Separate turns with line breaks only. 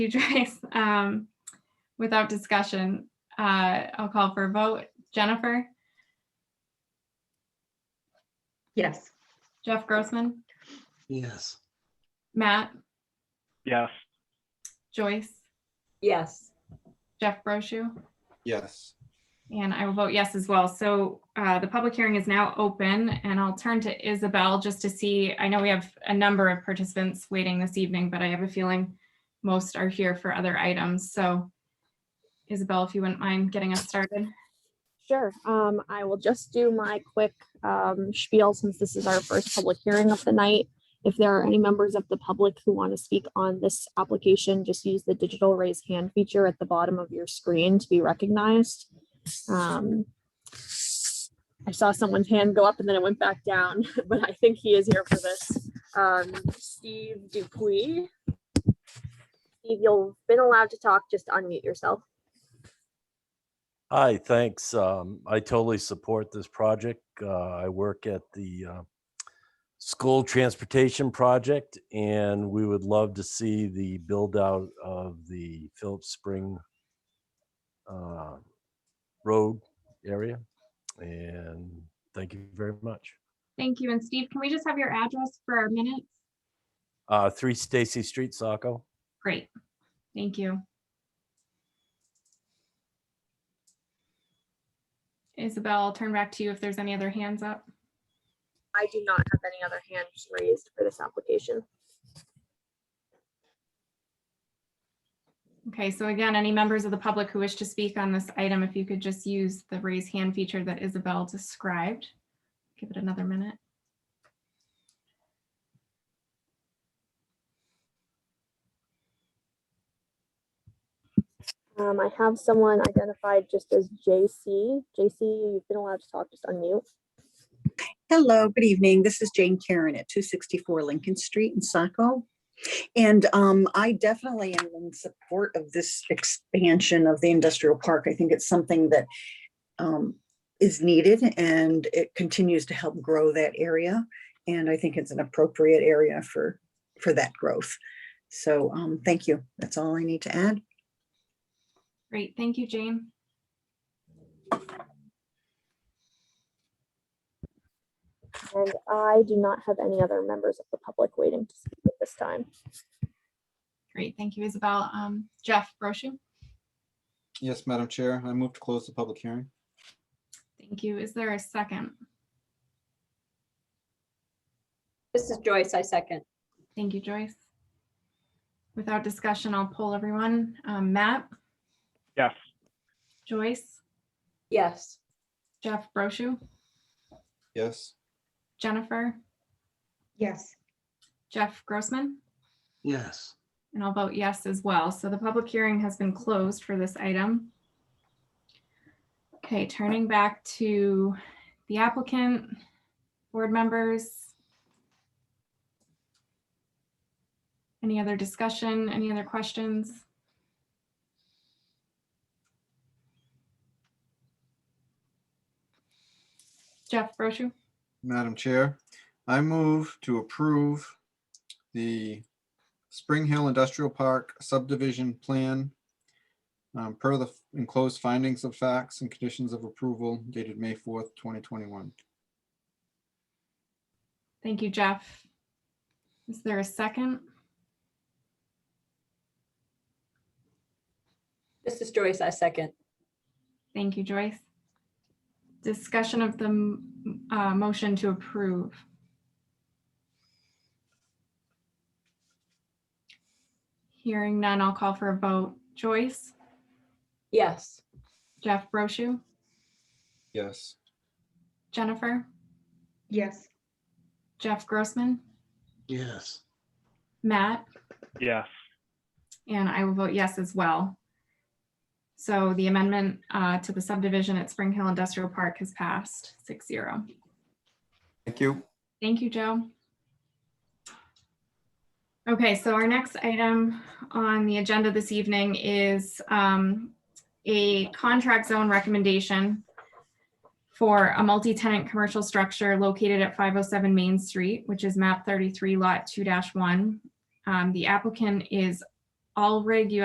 you, Joyce. Um, without discussion, uh, I'll call for a vote. Jennifer,
Yes.
Jeff Grossman,
Yes.
Matt,
Yes.
Joyce,
Yes.
Jeff Broschew,
Yes.
and I will vote yes as well. So, uh, the public hearing is now open and I'll turn to Isabel just to see, I know we have a number of participants waiting this evening, but I have a feeling most are here for other items. So Isabel, if you wouldn't mind getting us started.
Sure. Um, I will just do my quick um, spiel since this is our first public hearing of the night. If there are any members of the public who want to speak on this application, just use the digital raise hand feature at the bottom of your screen to be recognized. Um, I saw someone's hand go up and then it went back down, but I think he is here for this. Um, Steve Dupuy. Steve, you've been allowed to talk, just unmute yourself.
Hi, thanks. Um, I totally support this project. Uh, I work at the uh, school transportation project, and we would love to see the build out of the Phillips Spring uh, Road area. And thank you very much.
Thank you. And Steve, can we just have your address for our minutes?
Uh, Three Stacy Street, Saco.
Great. Thank you. Isabel, I'll turn back to you if there's any other hands up.
I do not have any other hands raised for this application.
Okay, so again, any members of the public who wish to speak on this item, if you could just use the raise hand feature that Isabel described. Give it another minute.
Um, I have someone identified just as JC. JC, you've been allowed to talk, just unmute.
Hello, good evening. This is Jane Karen at 264 Lincoln Street in Saco. And um, I definitely am in support of this expansion of the industrial park. I think it's something that um, is needed and it continues to help grow that area. And I think it's an appropriate area for, for that growth. So um, thank you. That's all I need to add.
Great, thank you, Jane.
And I do not have any other members of the public waiting to speak at this time.
Great, thank you, Isabel. Um, Jeff Broschew,
Yes, Madam Chair, I move to close the public hearing.
thank you. Is there a second?
This is Joyce, I second.
Thank you, Joyce. Without discussion, I'll poll everyone. Um, Matt,
Yes.
Joyce,
Yes.
Jeff Broschew,
Yes.
Jennifer,
Yes.
Jeff Grossman,
Yes.
and I'll vote yes as well. So the public hearing has been closed for this item. Okay, turning back to the applicant, board members. Any other discussion, any other questions? Jeff Broschew?
Madam Chair, I move to approve the Spring Hill Industrial Park subdivision plan um, per the enclosed findings of facts and conditions of approval dated May 4th, 2021.
Thank you, Jeff. Is there a second?
This is Joyce, I second.
Thank you, Joyce. Discussion of the m- uh, motion to approve. Hearing none, I'll call for a vote. Joyce,
Yes.
Jeff Broschew,
Yes.
Jennifer,
Yes.
Jeff Grossman,
Yes.
Matt,
Yes.
and I will vote yes as well. So the amendment uh, to the subdivision at Spring Hill Industrial Park has passed six zero.
Thank you.
Thank you, Joe. Okay, so our next item on the agenda this evening is um, a contract zone recommendation for a multi-tenant commercial structure located at 507 Main Street, which is map 33 lot 2-1. Um, The applicant is Allrig, you